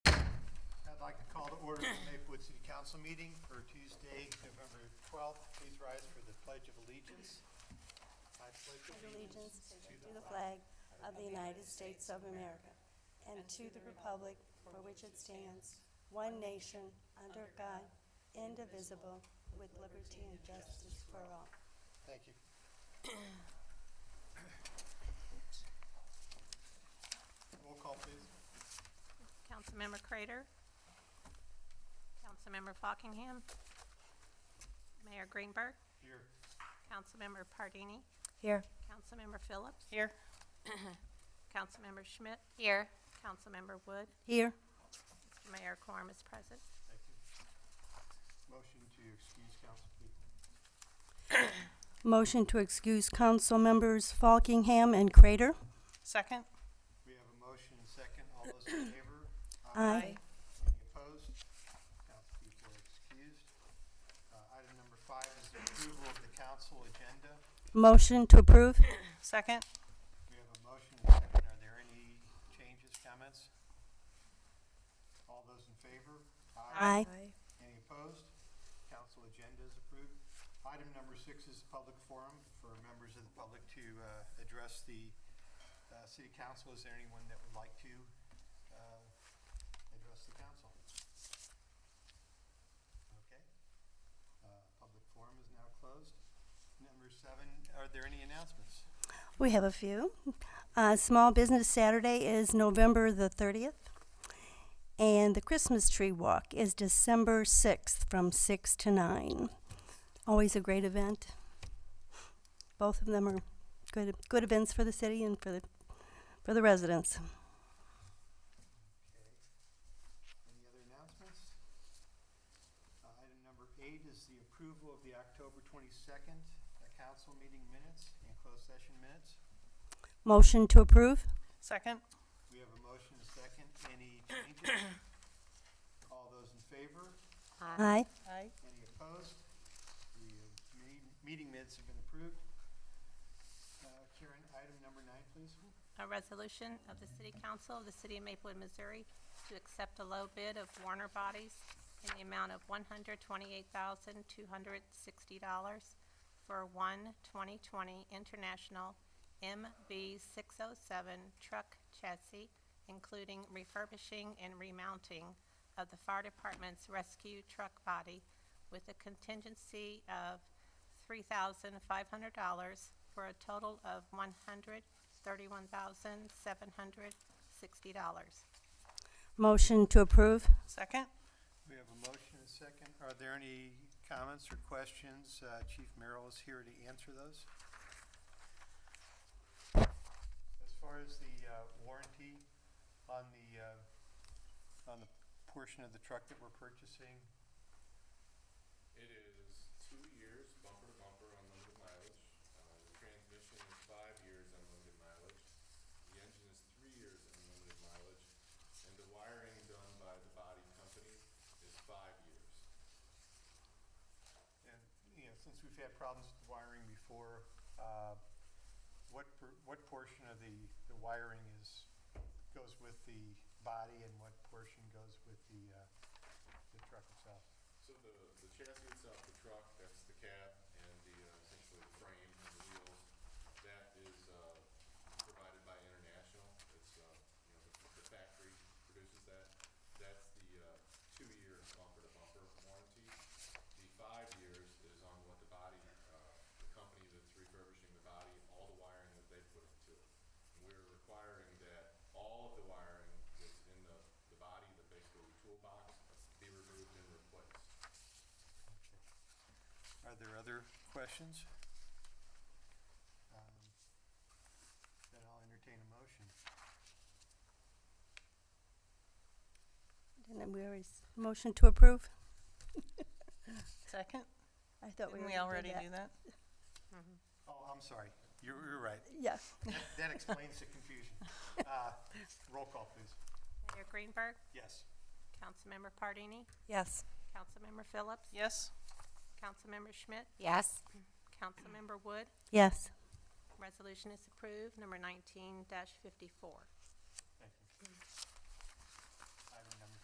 order the Maplewood City Council meeting for Tuesday, November 12th. Please rise for the Pledge of Allegiance. I pledge allegiance to the flag of the United States of America and to the republic for which it stands, one nation, under God, indivisible, with liberty and justice for all. Thank you. Roll call, please. Councilmember Crater. Councilmember Fockingham. Mayor Greenberg. Here. Councilmember Pardini. Here. Councilmember Phillips. Here. Councilmember Schmidt. Here. Councilmember Wood. Here. Mr. Mayor, quorum is present. Thank you. Motion to excuse council people. Motion to excuse council members Falkingham and Crater. Second. We have a motion and second. All those in favor? Aye. Any opposed? Council people are excused. Uh, Item number five is the approval of the council agenda. Motion to approve. Second. We have a motion and a second. Are there any changes, comments? All those in favor? Aye. Any opposed? Council agenda is approved. Item number six is public forum for members of the public to uh, address the uh, city council. Is there anyone that would like to uh, address the council? Okay. Uh, Public forum is now closed. Number seven, are there any announcements? We have a few. Uh, Small Business Saturday is November the 30th, and the Christmas Tree Walk is December 6th from 6 to 9. Always a great event. Both of them are good, good events for the city and for the, for the residents. Okay. Any other announcements? Uh, Item number eight is the approval of the October twenty-second, council meeting minutes and closed session minutes. Motion to approve? Second. We have a motion and a second. Any changes? All those in favor? Aye. Aye. Any opposed? The uh, me- meeting minutes have been approved. Uh, Karen, item number nine, please. A resolution of the City Council of the City of Maplewood, Missouri to accept a low bid of Warner Bodies in the amount of one hundred twenty-eight thousand, two hundred sixty dollars for one 2020 International MB six oh seven truck chassis, including refurbishing and remounting of the fire department's rescue truck body with a contingency of three thousand five hundred dollars for a total of one hundred thirty-one thousand seven hundred sixty dollars. Motion to approve? Second. We have a motion and a second. Are there any comments or questions? Uh, Chief Merrill is here to answer those. As far as the uh, warranty on the, uh, on the portion of the truck that we're purchasing, It is two years bumper to bumper unlimited mileage. Uh, the transmission is five years unlimited mileage. The engine is three years unlimited mileage. And the wiring done by the body company is five years. and, you know, since we've had problems with wiring before, uh, what, per- what portion of the, the wiring is, goes with the body and what portion goes with the, uh, the truck itself? So the, the chassis itself, the truck, that's the cab and the, uh, essentially the frame and the wheels, that is, uh, provided by International. It's, uh, you know, the- the factory produces that. That's the, uh, two-year bumper to bumper warranty. The five years is on what the body, uh, the company that's refurbishing the body, all the wiring that they put into it. And we're requiring that all of the wiring that's in the, the body, the basically toolbox, be removed and replaced. Are there other questions? Um, Then I'll entertain a motion. Didn't we already, s- motion to approve? Second. I thought we Didn't already we did already that. do that? Oh, I'm sorry. You're, you're right. Yes. That- That explains the confusion. Uh, Roll call, please. Mayor Greenberg, Yes. Councilmember Pardini, Yes. Councilmember Phillips, Yes. Councilmember Schmidt, Yes. Councilmember Wood. Yes. Resolution is approved. Number nineteen fifty-four.